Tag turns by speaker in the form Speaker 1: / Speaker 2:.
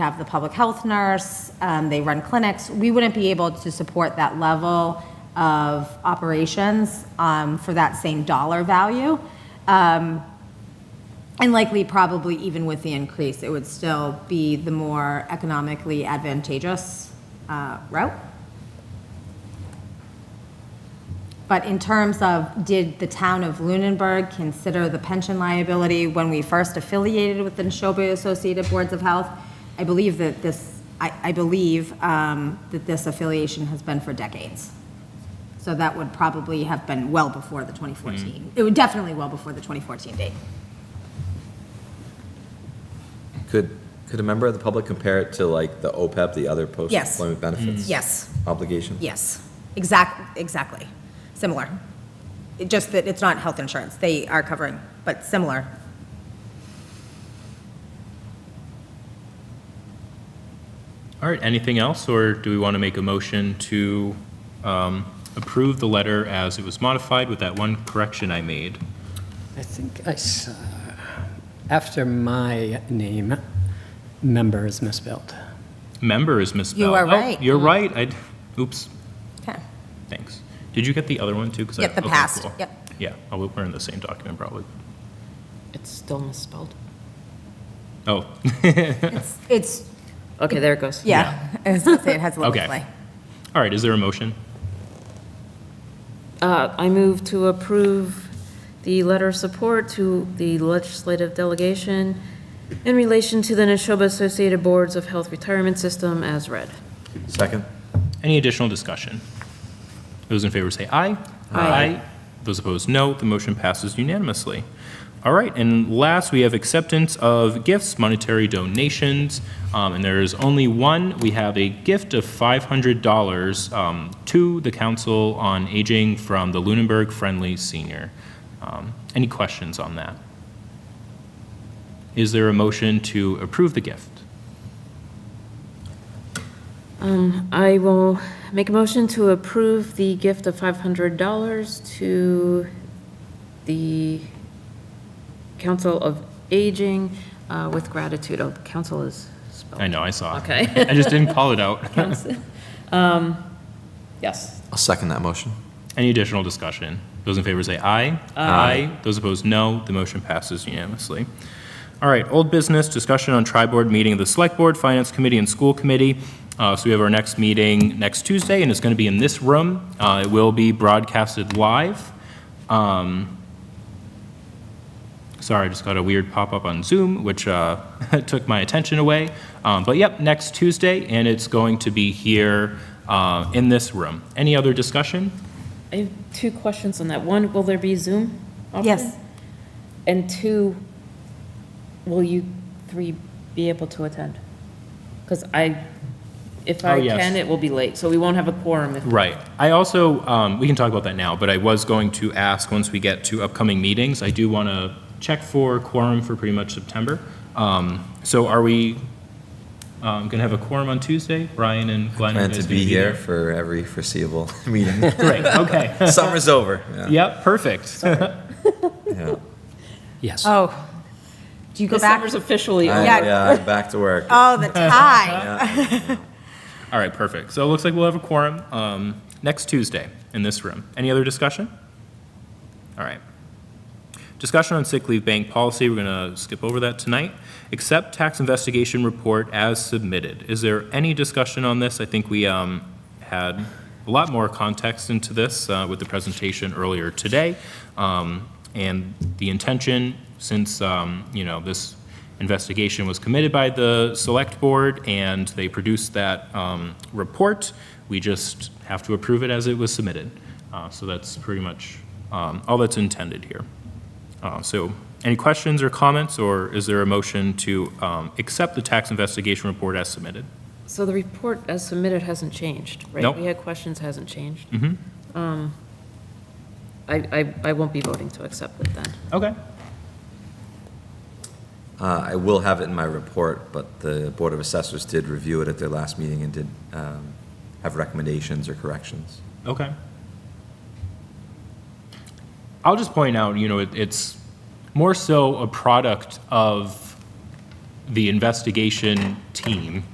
Speaker 1: have the public health nurse, um, they run clinics. We wouldn't be able to support that level of operations um, for that same dollar value. Um, And likely, probably even with the increase, it would still be the more economically advantageous uh, route. But in terms of, did the town of Lunenburg consider the pension liability when we first affiliated with the Neshoba Associated Boards of Health? I believe that this, I, I believe um, that this affiliation has been for decades. So that would probably have been well before the
Speaker 2: Mm-hmm.
Speaker 1: 2014. It would definitely well before the 2014 date.
Speaker 3: Could, could a member of the public compare it to like the OPEB, the other post-employment benefits
Speaker 1: Yes.
Speaker 3: Mm. obligation?
Speaker 1: Yes, exact, exactly, similar. It Just that it's not health insurance, they are covering, but similar.
Speaker 2: All right, anything else, or do we want to make a motion to um, approve the letter as it was modified with that one correction I made?
Speaker 4: I think I saw, after my name, member is misspelled.
Speaker 2: Member is misspelled.
Speaker 1: are
Speaker 2: Oh,
Speaker 1: right.
Speaker 2: You're right, I, oops,
Speaker 1: Okay.
Speaker 2: thanks. Did you get the other one, too? 'Cause I-
Speaker 1: Yep, the
Speaker 2: okay,
Speaker 1: past,
Speaker 2: cool.
Speaker 1: yep.
Speaker 2: Yeah, oh, we- we're in the same document, probably.
Speaker 5: It's still misspelled.
Speaker 2: Oh,
Speaker 1: It's, it's,
Speaker 5: Okay, there it goes.
Speaker 1: yeah, I was gonna say it has a little
Speaker 2: Okay.
Speaker 1: play.
Speaker 2: all right, is there a motion?
Speaker 5: Uh, I move to approve the letter of support to the legislative delegation in relation to the Neshoba Associated Boards of Health Retirement System as read.
Speaker 3: Second?
Speaker 2: Any additional discussion? Those in favor say aye.
Speaker 5: Aye.
Speaker 2: Those opposed, no. The motion passes unanimously. All right, and last, we have acceptance of gifts, monetary donations, um, and there is only one. We have a gift of $500 um, to the Council on Aging from the Lunenburg Friendly Senior. Um, Any questions on that? Is there a motion to approve the gift?
Speaker 5: I will make a motion to approve the gift of $500 to the Council of Aging uh, with gratitude. Oh, council is spelled.
Speaker 2: I know, I saw.
Speaker 5: Okay.
Speaker 2: I just didn't call it out.
Speaker 5: Yes,
Speaker 3: I'll second that motion.
Speaker 2: Any additional discussion? Those in favor say aye. Aye. Those opposed, no. The motion passes unanimously. All right, old business, discussion on tri-board meeting of the Select Board, Finance Committee, and School Committee. Uh, So we have our next meeting next Tuesday, and it's going to be in this room. Uh, It will be broadcasted live. Um, Sorry, I just got a weird pop-up on Zoom, which uh, took my attention away. Um, But yep, next Tuesday, and it's going to be here uh, in this room. Any other discussion?
Speaker 5: I have two questions on that. One, will there be Zoom option?
Speaker 1: Yes.
Speaker 5: And two, will you three be able to attend? Because I, if
Speaker 2: Oh,
Speaker 5: I
Speaker 2: yes.
Speaker 5: can, it will be late, so we won't have a quorum if.
Speaker 2: Right. I also, um, we can talk about that now, but I was going to ask, once we get to upcoming meetings, I do want to check for quorum for pretty much September. Um, So are we going to have a quorum on Tuesday? Brian and Glenn? are you
Speaker 3: Plan
Speaker 2: guys
Speaker 3: to
Speaker 2: gonna
Speaker 3: be here for every foreseeable meeting.
Speaker 2: Great, okay.
Speaker 3: Summer's over. Yeah.
Speaker 2: Yep, perfect.
Speaker 3: Yeah.
Speaker 4: Yes.
Speaker 1: Oh, do you go
Speaker 5: The
Speaker 1: back?
Speaker 5: summer's officially
Speaker 3: I-
Speaker 5: over.
Speaker 1: Yeah.
Speaker 3: Yeah, I'm back to work.
Speaker 1: Oh, the tie.
Speaker 2: All right, perfect. So it looks like we'll have a quorum um, next Tuesday in this room. Any other discussion? All right. Discussion on sick leave bank policy, we're going to skip over that tonight. Accept tax investigation report as submitted. Is there any discussion on this? I think we um, had a lot more context into this uh, with the presentation earlier today. Um, And the intention, since, um, you know, this investigation was committed by the select board and they produced that um, report, we just have to approve it as it was submitted. Uh, So that's pretty much um, all that's intended here. Uh, So any questions or comments, or is there a motion to um, accept the tax investigation report as submitted?
Speaker 5: So the report as submitted hasn't changed, right?
Speaker 2: Nope.
Speaker 5: We had questions, hasn't changed. Mm-hmm. I, I, I won't be voting to accept it then.
Speaker 2: Okay.
Speaker 3: Uh, I will have it in my report, but the Board of Assessors did review it at their last meeting and did um, have recommendations or corrections.
Speaker 2: Okay. I'll just point out, you know, it- it's more so a product of the investigation team